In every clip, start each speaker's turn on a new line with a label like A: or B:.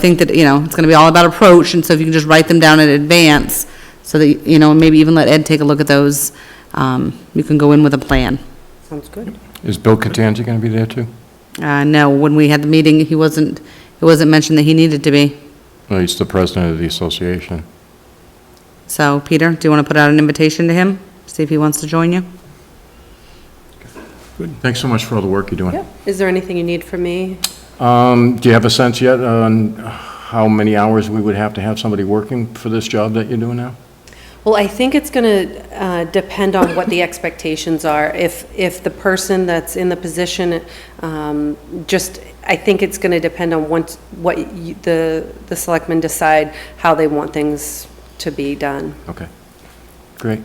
A: think that, you know, it's gonna be all about approach, and so if you can just write them down in advance, so that, you know, and maybe even let Ed take a look at those, um, you can go in with a plan.
B: Sounds good.
C: Is Bill Catanza going to be there too?
A: Uh, no, when we had the meeting, he wasn't, it wasn't mentioned that he needed to be.
C: Well, he's the president of the association.
A: So, Peter, do you wanna put out an invitation to him? See if he wants to join you?
C: Thanks so much for all the work you're doing.
B: Is there anything you need from me?
C: Um, Do you have a sense yet on how many hours we would have to have somebody working for this job that you're doing now?
B: Well, I think it's going to depend on what the expectations are. If, if the person that's in the position, um, just, I think it's going to depend on once, what you- the, the selectmen decide how they want things to be done.
C: Okay, great.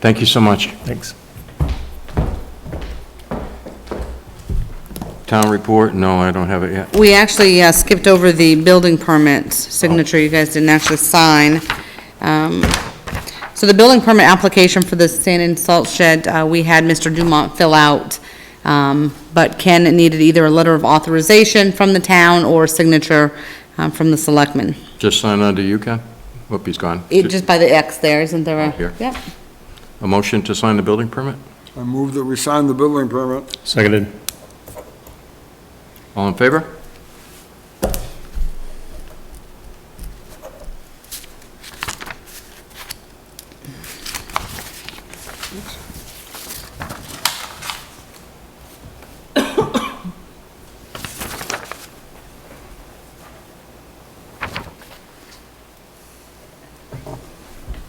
C: Thank you so much.
D: Thanks.
C: Town report? No, I don't have it yet.
A: We actually uh, skipped over the building permit signature, you guys didn't actually sign. Um, So the building permit application for the sand and salt shed, uh, we had Mr. Dumont fill out, um, but Ken needed either a letter of authorization from the town or a signature um, from the selectmen.
C: Just sign under you, Ken? Whoop, he's gone.
A: It, just by the X there, isn't there a?
C: Here.
A: Yep.
C: A motion to sign the building permit?
E: I move that we sign the building permit.
D: Seconded.
C: All in favor?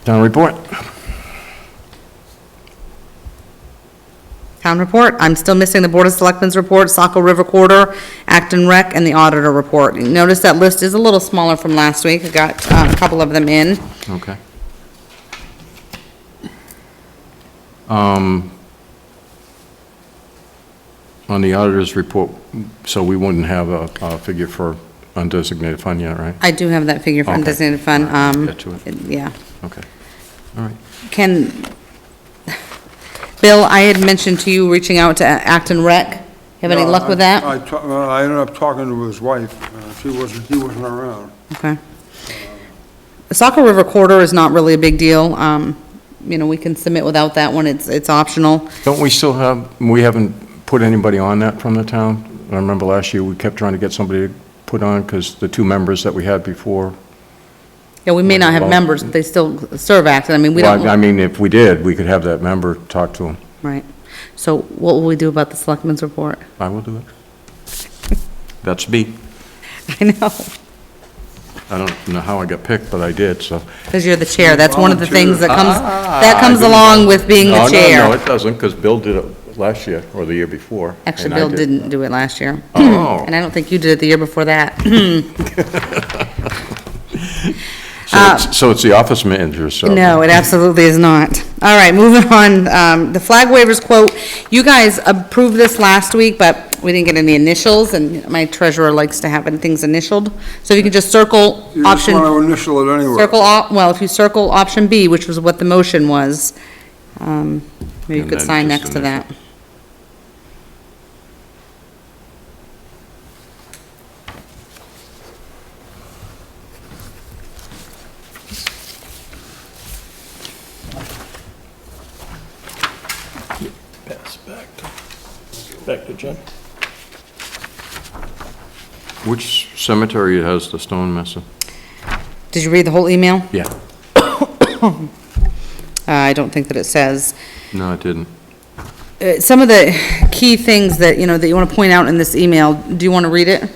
C: Town report?
A: Town report, I'm still missing the Board of Selectmen's report, Saco River Corridor, Acton Rec, and the auditor report. Notice that list is a little smaller from last week, I got uh, a couple of them in.
C: Okay. Um, On the auditor's report, so we wouldn't have a, a figure for undesignated fund yet, right?
A: I do have that figure for
C: Okay.
A: undesignated fund, um,
C: Get to it.
A: yeah.
C: Okay, all right.
A: Can, Bill, I had mentioned to you reaching out to Acton Rec. Have any
E: No,
A: luck with
E: I-
A: that?
E: I, ta- uh, I ended up talking to his wife. Uh, She wasn't, he wasn't around.
A: Okay. The Saco River Corridor is not really a big deal, um, you know, we can submit without that one, it's, it's optional.
C: Don't we still have, we haven't put anybody on that from the town? I remember last year, we kept trying to get somebody to put on, because the two members that we had before,
A: Yeah, we may not have
C: Well-
A: members, but they still serve Acton, I mean, we
C: well, I I
A: don't,
C: mean, if we did, we could have that member talk to him.
A: right. So what will we do about the selectmen's report?
C: I will do it. That's B.
A: I know,
C: I don't know how I got picked, but I did, so.
A: because you're the chair, that's one of the things that comes, that
C: Ah,
A: comes
C: I didn't
A: along
C: know.
A: with being the chair.
C: Oh, No, no, no, it doesn't, because Bill did it last year, or the year before.
A: Actually,
C: and I
A: Bill
C: did.
A: didn't do it last year.
C: Oh.
A: And I don't think you did it the year before that.
C: So it's- So it's the office manager, so.
A: Uh, No, it absolutely is not. All right, moving on, um, the flag waivers quote, you guys approved this last week, but we didn't get any initials, and my treasurer likes to have things initialed. So if you can just circle
E: You just
A: option,
E: want to initial it anyway.
A: circle, op- well, if you circle option B, which was what the motion was, um, maybe you
C: And
A: could
C: then
A: sign
C: just
A: next to
C: initial.
A: that.
D: Pass back to, back to Jim.
C: Which cemetery has the stone mesa?
A: Did you read the whole email?
C: Yeah.
A: Uh, I don't think that it says.
C: No, it didn't.
A: Uh, Some of the key things that, you know, that you want to point out in this email, do you want to read it?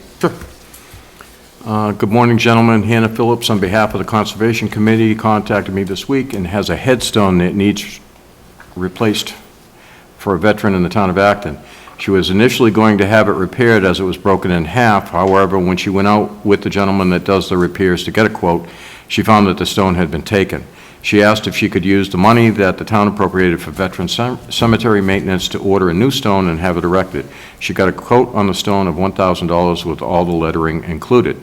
C: Uh, Good morning, gentlemen. Hannah Phillips, on behalf of the Conservation Committee, contacted me this week and has a headstone that needs replaced for a veteran in the town of Acton. She was initially going to have it repaired as it was broken in half. However, when she went out with the gentleman that does the repairs to get a quote, she found that the stone had been taken. She asked if she could use the money that the town appropriated for veteran cem- cemetery maintenance to order a new stone and have it erected. She got a quote on the stone of $1,000 with all the lettering included.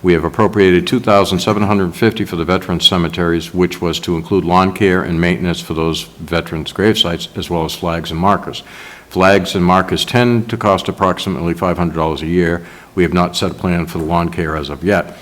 C: We have appropriated $2,750 for the veterans' cemeteries, which was to include lawn care and maintenance for those veterans' gravesites, as well as flags and markers. Flags and markers tend to cost approximately $500 a year, We have not set a plan for the lawn care as of yet.